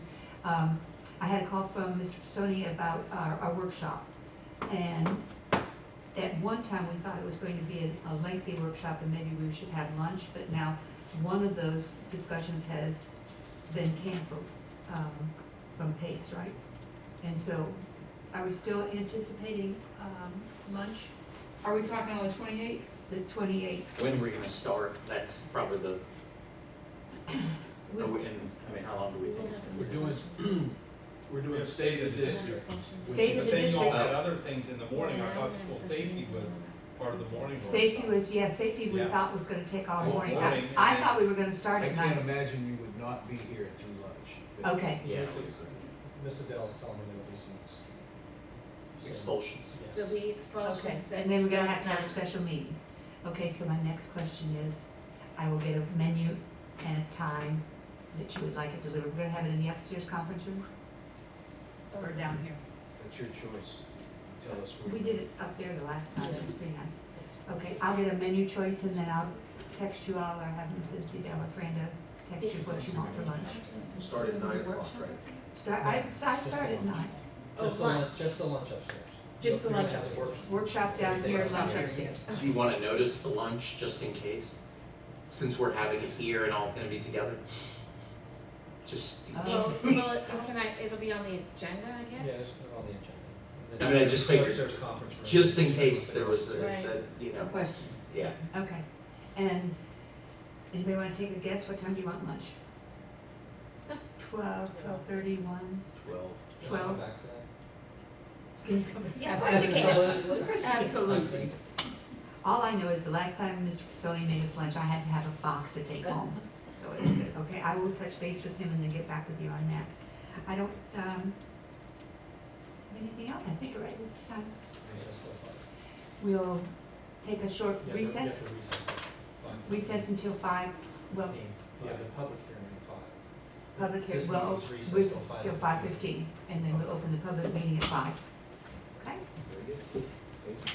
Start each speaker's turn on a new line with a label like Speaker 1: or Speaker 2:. Speaker 1: um, I had a call from Mr. Pistone about our, our workshop. And at one time, we thought it was going to be a- a lengthy workshop and maybe we should have lunch, but now one of those discussions has been canceled, um, from Pace, right? And so are we still anticipating, um, lunch,
Speaker 2: Are we talking on the twenty-eighth?
Speaker 1: the twenty-eighth?
Speaker 3: When we're gonna start, that's probably the, are we, and, I mean, how long do we think it's
Speaker 4: We're
Speaker 3: gonna be?
Speaker 4: doing, we're doing
Speaker 5: Yeah.
Speaker 4: state of the district.
Speaker 5: Functions.
Speaker 1: State of
Speaker 5: But
Speaker 1: the
Speaker 5: then you all
Speaker 1: district.
Speaker 5: had other things in the morning, I thought school Nine,
Speaker 4: safety
Speaker 5: that's-
Speaker 4: was part of the morning workshop.
Speaker 1: Safety was, yeah, safety we
Speaker 5: Yes.
Speaker 1: thought was gonna take all
Speaker 4: All
Speaker 1: morning. I,
Speaker 5: morning,
Speaker 1: I
Speaker 5: and
Speaker 1: thought we were gonna start
Speaker 4: I
Speaker 1: at
Speaker 4: can't
Speaker 1: nine.
Speaker 4: imagine you would not be here through lunch.
Speaker 1: Okay,
Speaker 3: Yeah,
Speaker 4: uh,
Speaker 6: Miss Adele's telling me there'll be some.
Speaker 3: expulsions.
Speaker 5: There'll
Speaker 6: Yes.
Speaker 5: be expulsions
Speaker 1: okay.
Speaker 5: that
Speaker 1: And then we're gonna
Speaker 5: start
Speaker 1: have to have a
Speaker 5: now.
Speaker 1: special meeting. Okay, so my next question is, I will get a menu and a time that you would like it delivered. We're gonna have it in the upstairs conference room or down here?
Speaker 4: It's your choice. Tell us where.
Speaker 1: We
Speaker 4: you-
Speaker 1: did it up there the last time. It was pretty nice.
Speaker 5: That's-
Speaker 1: Okay, I'll get a menu choice and then I'll text you all or have Mrs. Adele or Brenda text you what you want for lunch.
Speaker 7: Start at nine o'clock, right?
Speaker 1: Start, I, I start at nine.
Speaker 5: Oh,
Speaker 6: Just the lunch,
Speaker 5: lunch.
Speaker 6: just the lunch upstairs.
Speaker 1: Just the
Speaker 6: You're gonna
Speaker 1: lunch
Speaker 6: have the
Speaker 1: upstairs.
Speaker 6: workshop.
Speaker 1: Workshop down here, lunch
Speaker 6: Everything
Speaker 1: upstairs.
Speaker 3: Do you wanna notice the lunch just in case? Since we're having it here and all it's gonna be together? Just,
Speaker 1: Oh.
Speaker 5: Well, well, it- can I, it'll be on the agenda, I
Speaker 6: Yeah, just
Speaker 5: guess?
Speaker 6: put it on the agenda. And
Speaker 3: I
Speaker 6: then
Speaker 3: mean, I just figured,
Speaker 6: Upstairs conference room.
Speaker 3: just in case there was a,
Speaker 5: Right.
Speaker 3: that, you know,
Speaker 2: question.
Speaker 3: yeah.
Speaker 1: Okay, and anybody wanna take a guess, what time do you want lunch? Twelve, twelve-thirty, one,
Speaker 4: Twelve.
Speaker 6: Can I come
Speaker 1: twelve?
Speaker 6: back to that?
Speaker 1: Yeah, of course you can. Of course you can.
Speaker 2: Absolutely.
Speaker 1: All I know is the last time Mr. Pistone made us lunch, I had to have a box to take home, so it's good, okay, I will touch base with him and then get back with you on that. I don't, um, anything else, I think we're right at this time,
Speaker 6: Recess till five.
Speaker 1: we'll take a short
Speaker 6: You have to- you have
Speaker 1: recess,
Speaker 6: to recess till five.
Speaker 1: recess until five, well,
Speaker 6: Yeah, the public hearing at five.
Speaker 1: Public hearing,
Speaker 6: This
Speaker 1: well,
Speaker 6: meeting's recessed
Speaker 1: with,
Speaker 6: till five.
Speaker 1: till five fifteen, and then we'll open the public meeting at five. Okay?
Speaker 4: Very good. Thank you.